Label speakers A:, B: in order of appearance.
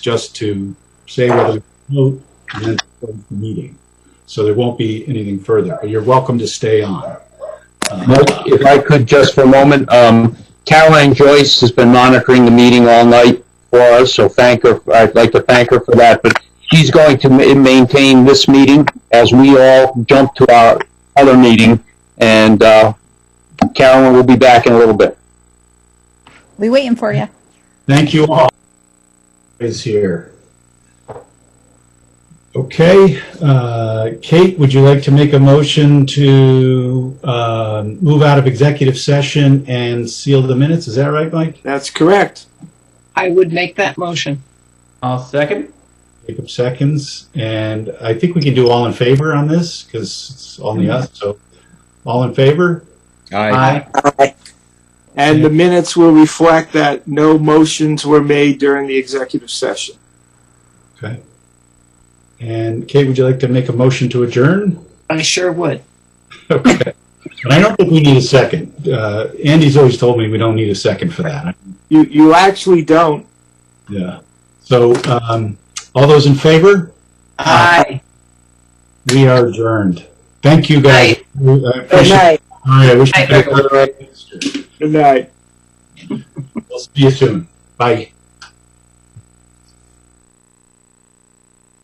A: just to say whether to vote and then close the meeting. So there won't be anything further, but you're welcome to stay on. Uh,
B: Mike, If I could just for a moment, um, Caroline Joyce has been monitoring the meeting all night for us, so thank her, I'd like to thank her for that, but she's going to ma- maintain this meeting as we all jump to our other meeting, and, uh, Carolyn will be back in a little bit.
C: We waiting for you.
A: Thank you all. Is here. Okay, uh, Kate, would you like to make a motion to um, move out of executive session and seal the minutes? Is that right, Mike?
D: That's correct.
E: I would make that motion.
F: I'll second.
A: Jacob seconds, and I think we can do all in favor on this because it's only us. So, all in favor?
F: Aye.
D: And the minutes will reflect that no motions were made during the executive session.
A: Okay. And Kate, would you like to make a motion to adjourn?
E: I sure would.
A: Okay. And I don't think we need a second. Uh, Andy's always told me we don't need a second for that.
D: You, you actually don't.
A: Yeah. So, um, all those in favor?
E: Aye.
A: We are adjourned. Thank you, guys. I
D: Good
A: appreciate-
D: night.
A: All right, I wish we
E: Night,
A: could.
D: Good night.
A: We'll see you soon. Bye.